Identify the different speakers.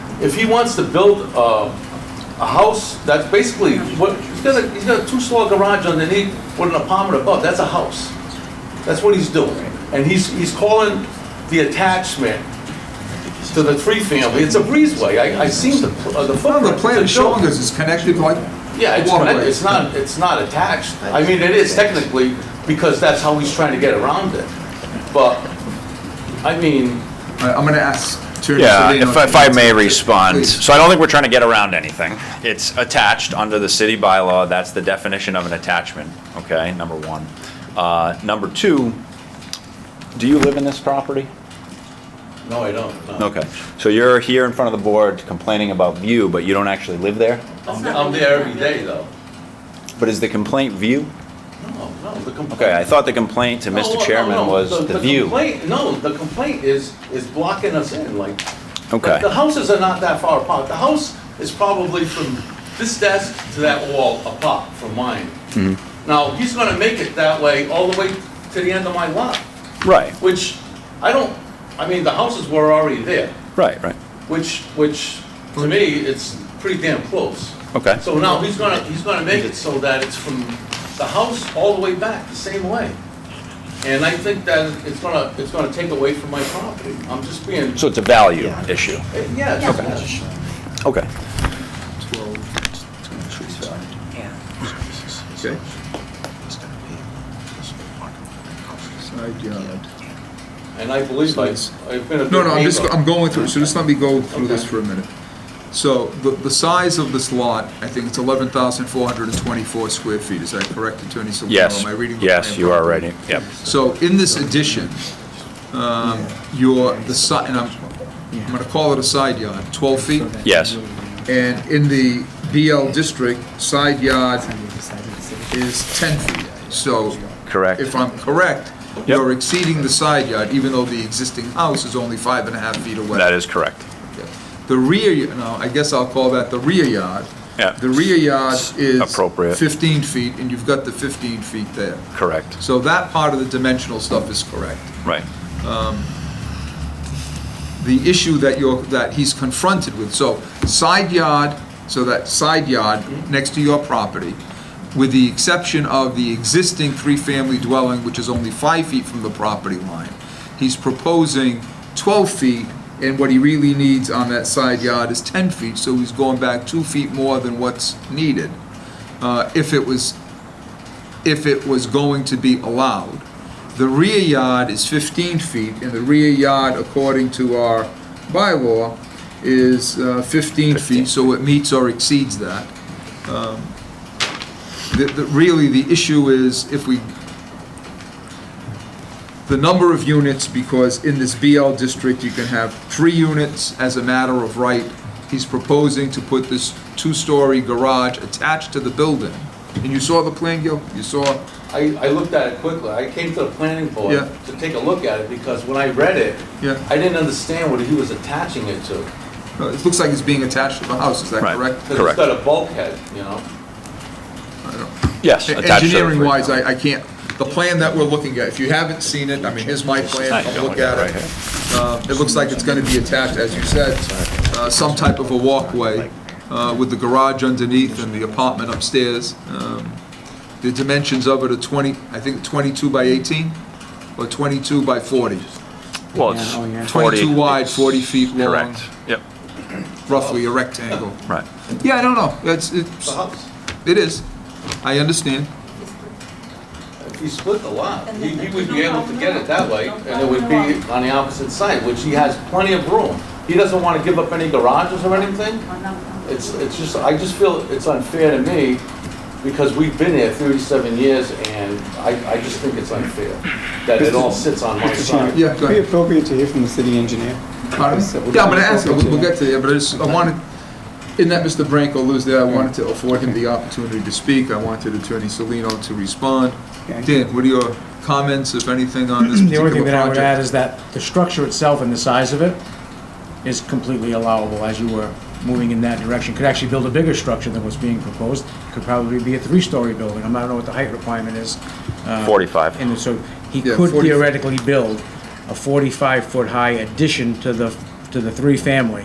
Speaker 1: if he wants to build a, a house, that's basically what, he's got a, he's got a two-story garage underneath with an apartment above, that's a house. That's what he's doing. And he's, he's calling the attachment to the three-family, it's a breezeway, I, I seen the, pl- uh, the
Speaker 2: Well,
Speaker 1: footprint.
Speaker 2: the plan
Speaker 1: It's a
Speaker 2: showing
Speaker 1: building.
Speaker 2: us it's connected like
Speaker 1: Yeah, it's,
Speaker 2: waterway.
Speaker 1: connected. it's not, it's not attached. I mean, it is technically, because that's how he's trying to get around it. But, I mean,
Speaker 2: I- I'm gonna ask. to-
Speaker 3: Yeah,
Speaker 2: so they know
Speaker 3: if if I may
Speaker 2: it's-
Speaker 3: respond,
Speaker 2: Please.
Speaker 3: so I don't think we're trying to get around anything. It's attached under the city bylaw, that's the definition of an attachment, okay, number one. Uh, Number two, do you live in this property?
Speaker 1: no, I don't. no.
Speaker 3: Okay, so you're here in front of the board complaining about view, but you don't actually live there?
Speaker 1: I'm I'm there every day, though.
Speaker 3: But is the complaint view?
Speaker 1: No, no, the complaint.
Speaker 3: Okay, I thought the complaint to
Speaker 1: No, no,
Speaker 3: Mr.
Speaker 1: no,
Speaker 3: Chairman was the view.
Speaker 1: complaint- No, the complaint is, is blocking us in, like.
Speaker 3: Okay.
Speaker 1: The houses are not that far apart. The house is probably from this desk to that wall apart from mine.
Speaker 3: Mm-hmm.
Speaker 1: Now, he's gonna make it that way all the way to the end of my lot,
Speaker 3: Right,
Speaker 1: which I don't, I mean, the houses were already there,
Speaker 3: right, right,
Speaker 1: which, which, to me, it's pretty damn close.
Speaker 3: okay.
Speaker 1: So now he's gonna, he's gonna make it so that it's from the house all the way back, the same way. And I think that it's gonna, it's gonna take away from my property. I'm just being,
Speaker 3: So it's a value issue,
Speaker 1: Eh, yeah, it's- yeah.
Speaker 3: okay.
Speaker 2: Okay. Side yard.
Speaker 1: And I believe I, I've been a
Speaker 2: No,
Speaker 1: good
Speaker 2: no, I'm just,
Speaker 1: neighbor.
Speaker 2: I'm going through, it, so just let me go through this
Speaker 1: Okay.
Speaker 2: for a minute. So the, the size of this lot, I think it's 11,424 square feet, is that correct, Attorney Solano?
Speaker 3: Yes,
Speaker 2: Oh, Am I reading the
Speaker 3: yes,
Speaker 2: plan
Speaker 3: you are
Speaker 2: properly?
Speaker 3: right, yep.
Speaker 2: So in this addition, um, your, the side, and I'm, I'm gonna call it a side yard, 12 feet?
Speaker 3: Yes.
Speaker 2: And in the BL district, side yard is 10 feet. So
Speaker 3: Correct.
Speaker 2: if I'm correct,
Speaker 3: Yep.
Speaker 2: you're exceeding the side yard, even though the existing house is only five and a half feet away.
Speaker 3: That is correct.
Speaker 2: The rear, y- no, I guess I'll call that the rear yard.
Speaker 3: Yeah.
Speaker 2: The rear yard is.
Speaker 3: Appropriate.
Speaker 2: 15 feet, and you've got the 15 feet there.
Speaker 3: Correct,
Speaker 2: So that part of the dimensional stuff is correct.
Speaker 3: right.
Speaker 2: the issue that you're, that he's confronted with. So side yard, so that side yard next to your property, with the exception of the existing three-family dwelling, which is only five feet from the property line, he's proposing 12 feet, and what he really needs on that side yard is 10 feet, so he's going back two feet more than what's needed, uh, if it was, if it was going to be allowed. The rear yard is 15 feet, and the rear yard, according to our bylaw, is uh, 15 feet, so it meets or exceeds that. Um, the- the- Really, the issue is if we, the number of units, because in this BL district, you can have three units as a matter of right. He's proposing to put this two-story garage attached to the building. And you saw the plan, Gil? You saw?
Speaker 1: I, I looked at it quickly. I came to the planning board
Speaker 2: Yeah.
Speaker 1: to take a look at it because when I read it,
Speaker 2: Yeah.
Speaker 1: I didn't understand what he was attaching it to.
Speaker 2: No, It looks like it's being attached to the house, is that
Speaker 3: Right.
Speaker 2: correct?
Speaker 1: Because it's
Speaker 3: Correct.
Speaker 1: got a bulkhead, you know?
Speaker 3: Yes. attached to the
Speaker 2: E- Engineering
Speaker 3: front.
Speaker 2: wise, I, I can't, the plan that we're looking at, if you haven't seen it, I mean, here's my plan,
Speaker 3: Nice.
Speaker 2: I'll look at
Speaker 3: Right here.
Speaker 2: it. Uh, It looks like it's gonna be attached, as you said, uh, some type of a walkway uh, with the garage underneath and the apartment upstairs. Um, The dimensions of it are 20, I think 22 by 18 or 22 by 40.
Speaker 3: Well,
Speaker 4: Yeah, oh, yeah.
Speaker 3: it's 40.
Speaker 2: 22 wide, 40 feet long,
Speaker 3: Correct, yep,
Speaker 2: roughly a rectangle.
Speaker 3: right.
Speaker 2: Yeah, I don't know, it's, it's,
Speaker 1: The house.
Speaker 2: it is, I understand.
Speaker 1: If he split the lot, he, he would be able to get it that way, and it would be on the opposite side, which he has plenty of room. He doesn't wanna give up any garages or anything. It's, it's just, I just feel it's unfair to me, because we've been here thirty-seven years, and I, I just think it's unfair that it all sits on my side.
Speaker 2: Yeah, go
Speaker 4: It'd be
Speaker 2: ahead.
Speaker 4: appropriate to hear from the city engineer.
Speaker 2: Pardon?
Speaker 4: So we're
Speaker 2: Yeah, I'm
Speaker 4: gonna
Speaker 2: gonna ask,
Speaker 4: focus
Speaker 2: we'll we'll
Speaker 4: here.
Speaker 2: get to you, but I just, I wanted, in that Mr. Branco lives there, I wanted to afford him the opportunity to speak, I wanted Attorney Salino to respond.
Speaker 4: Okay.
Speaker 2: Dan, what are your comments, if anything, on this
Speaker 5: The
Speaker 2: particular
Speaker 5: only thing that I would add
Speaker 2: project?
Speaker 5: is that the structure itself and the size of it is completely allowable as you were moving in that direction. Could actually build a bigger structure than what's being proposed. Could probably be a three-story building. I'm not know what the height requirement is. uh,
Speaker 3: 45.
Speaker 5: And so he
Speaker 2: Yeah,
Speaker 5: could
Speaker 2: 40.
Speaker 5: theoretically build a 45-foot-high addition to the, to the three-family